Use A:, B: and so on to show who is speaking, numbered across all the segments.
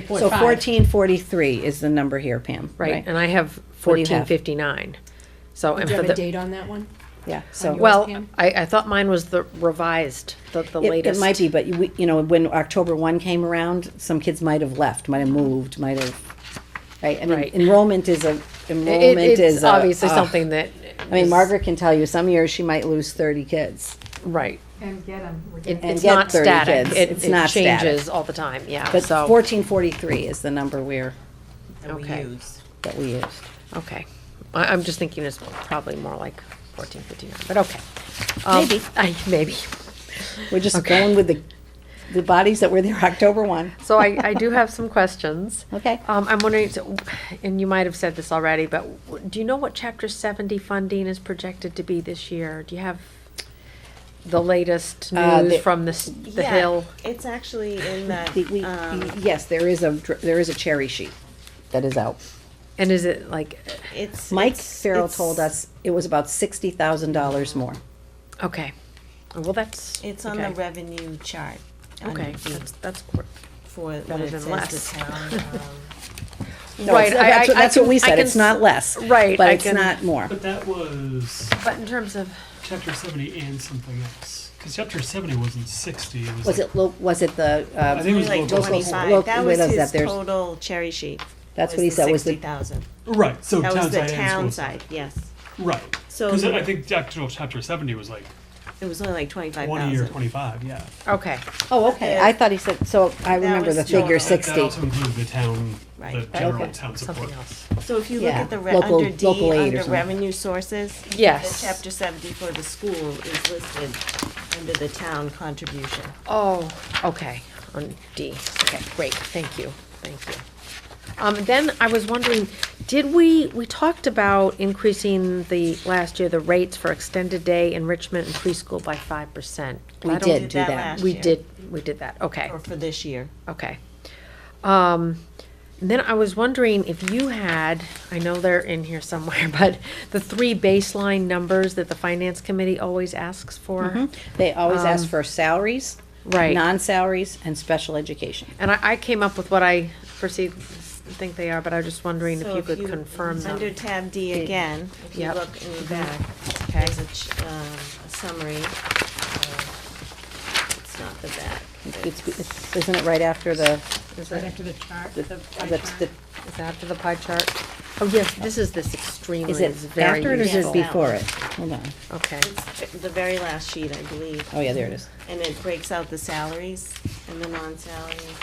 A: Three
B: So fourteen forty-three is the number here, Pam,
C: Right,
B: right?
C: and I have
B: What do you
C: fourteen
B: have?
C: fifty-nine. So,
A: Do
C: and
A: you
C: for
A: have a
C: the,
A: date on that one?
B: Yeah,
A: On
B: so.
A: your-
C: well,
A: Pam?
C: I, I thought mine was the revised, the, the
B: It, it
C: latest.
B: might be, but you, we- you know, when October one came around, some kids might have left, might have moved, might have, right? I mean,
C: Right.
B: enrollment is a,
C: It-
B: enrollment
C: It's
B: is a.
C: obviously
B: ugh.
C: something that.
B: I mean,
C: is-
B: Margaret can tell you, some years she might lose thirty kids.
C: Right.
D: And get them.
C: It- It's
B: get
C: not
B: 30
C: static.
B: kids.
C: It,
B: It's not
C: it
B: static.
C: changes all the time, yeah,
B: But
C: so,
B: fourteen forty-three is the number we're,
E: that we
C: Okay.
E: use.
B: that we used.
C: okay. I, I'm just thinking it's probably more like fourteen fifty-nine, but okay. Um,
B: Maybe.
C: I, maybe.
B: We're just
C: Okay.
B: going with the, the bodies that were there October one.
C: So I, I do have some questions.
B: Okay.
C: Um, I'm wondering, so- and you might have said this already, but do you know what chapter seventy funding is projected to be this year? Do you have the latest
B: Uh,
C: news
B: the-
C: from the, s- the
E: Yeah,
C: hill?
E: It's actually in that,
B: The- we-
E: um,
B: Yes, there is a, dr- there is a cherry sheet that is out.
C: And is it like,
E: it's.
B: Mike
E: it's-
B: Farrell
E: it's-
B: told us it was about sixty thousand dollars more.
C: okay, well, that's.
E: It's on the
C: okay.
E: revenue chart. under
C: Okay,
E: the-
C: that's, that's cool.
E: For when
C: better
E: it
C: than
E: says
C: less.
E: the town, um,
B: No, it's- That's what- that's what we said, it's not less.
C: right,
B: But
C: I
B: it's
C: can-
B: not more.
F: But that was
C: But in terms of,
F: chapter seventy and something else. Because chapter seventy wasn't sixty. It was,
B: Was
F: like,
B: it, lo- was was it the, uh,
F: I think it was
E: like
F: local.
B: local-
E: twenty-five,
B: local-
E: that
B: what
E: was
B: is that?
E: his
B: There's-
E: total cherry sheet.
B: That's what he said was the-
E: Sixty thousand,
F: right? So
E: that
F: Oh, town
E: was the
F: side and
E: town
F: school
E: side, yes,
F: Right.
E: So
F: because
E: the-
F: I think the actual chapter seventy was like
E: it was only like twenty-five
F: twenty or
E: thousand.
F: twenty-five. Yeah.
C: okay,
B: oh, okay, I thought he said, so I remember
E: was
B: the figure
E: total.
F: That
B: sixty.
F: also included the town, the
E: Right.
F: general
C: okay,
F: town support.
C: something else.
E: So if you look
B: Yeah.
E: at the, re-
B: Local-
E: under D,
B: local aid or
E: under
B: something.
E: revenue sources.
C: Yes.
E: The chapter seventy for the school is listed under the town contribution.
C: Oh, okay, on D, okay, great, thank you, thank you. Um, then I was wondering, did we, we talked about increasing the, last year, the rates for extended day enrichment and preschool by five percent?
B: We did do
E: that
B: that.
E: last
C: We
E: year.
C: did, we did that, okay.
E: Or for this year.
C: Okay. Um, then I was wondering if you had, I know they're in here somewhere, but the three baseline numbers that the finance committee always asks for.
B: They always
E: Um,
B: ask for salaries,
C: Right.
B: non-salaries, and special education.
C: And I, I came up with what I perceive, think they are, but I was just wondering if
E: So
C: you could confirm
E: Under
C: them.
E: tab D again, if you
C: Yep.
E: look in the back,
C: Okay.
E: there's a, ch- um, a summary. of- It's not the back.
B: It's, it's- isn't it right after the,
D: Right
C: Is that,
D: after the chart,
B: the,
D: the pie
B: that's
D: chart.
B: the,
C: is that after the pie chart? Oh, yes, this is this extremely,
B: is
C: it's
B: it
C: very
B: after it or
C: useful.
B: is it
E: useful.
B: before it? Hold on,
C: Okay,
E: It's the very last sheet, I believe.
B: oh yeah, there it is.
E: And it breaks out the salaries and the non-salaries,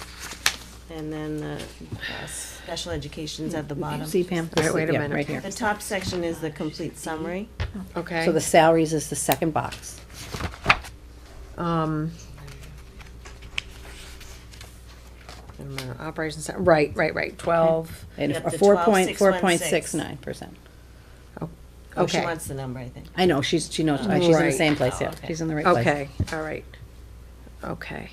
E: and then the uh, special education's at the bottom.
B: See Pam?
C: All right, wait a
B: Yeah,
C: minute.
B: Right here.
E: The top section is the complete summary.
C: okay.
B: So the salaries is the second box.
C: Um. and the Operations, cen- right, right, right, twelve,
B: And
E: Yep,
B: a
E: the
B: four point, four point
E: 12,616.
B: six nine percent.
E: Oh, she
C: Okay.
E: wants the number, I think.
B: I know, she's, she knows, uh, she's in the
C: Right.
B: same place, yeah,
E: Oh, okay.
B: she's in the right place.
C: okay, all right, okay.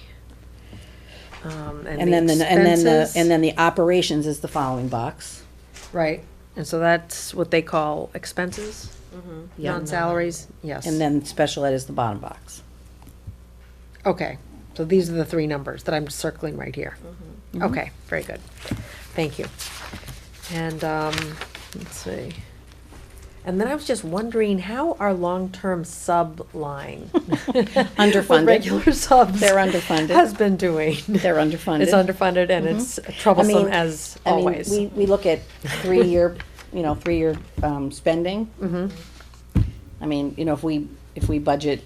C: Um,
B: And then,
C: and
B: the and then, the and
C: the then
B: then the operations is the following box.
C: Right, and so that's what they call expenses,
B: Yeah.
C: non-salaries, yes.
B: And then special ed is the bottom box.
C: Okay, so these are the three numbers that I'm circling right here. Okay, very good. Thank you. And, um, let's see. And then I was just wondering, how our long-term sub line? with
B: Underfunded,
C: Regular subs.
B: They're underfunded.
C: Has been doing.
B: they're underfunded. Mm-hmm.
C: It's underfunded and it's troublesome as
B: I mean,
C: always.
B: We, we look at three-year, you know, three-year, um, spending. I mean, you know, if we, if we budget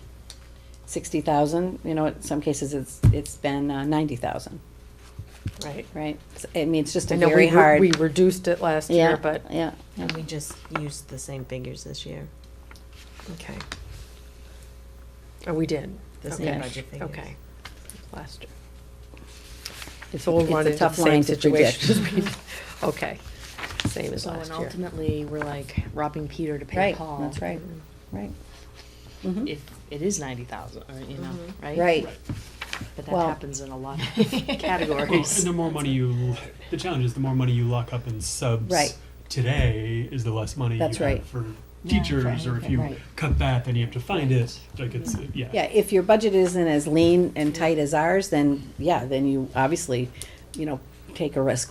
B: sixty thousand, you know, in some cases, it's, it's been uh, ninety thousand,
C: Right.
B: right? It's- I mean, it's just
C: I
B: a
C: know
B: very
C: we, re-
B: hard.
C: we reduced it last
B: Yeah,
C: year, but,
B: Yeah, yeah.
E: And we just used the same figures this year,
C: okay. Oh, we did,
E: the same
B: Okay.
E: budget figures.
C: okay. Last year.
B: It's
C: So we'll
B: it's a
C: run into the
B: tough
C: same
B: line to predict.
C: situation. as we- Okay, same as
G: So, and
C: last year.
G: ultimately, we're like robbing Peter to pay
B: Right,
G: Paul.
B: that's right, right, Mm-hmm.
G: If it is ninety thousand, or you know, right?
B: right.
G: But that
B: Well-
G: happens in a lot of
F: Well,
G: categories.
F: and the more money you, the challenge is the more money you lock up in subs
B: Right.
F: today is the less money
B: That's
F: you
B: right.
F: have for teachers, or if you
G: right.
F: cut that, then you have to find it. Like it's yeah.
B: Yeah, if your budget isn't as lean and tight as ours, then, yeah, then you obviously, you know, take a risk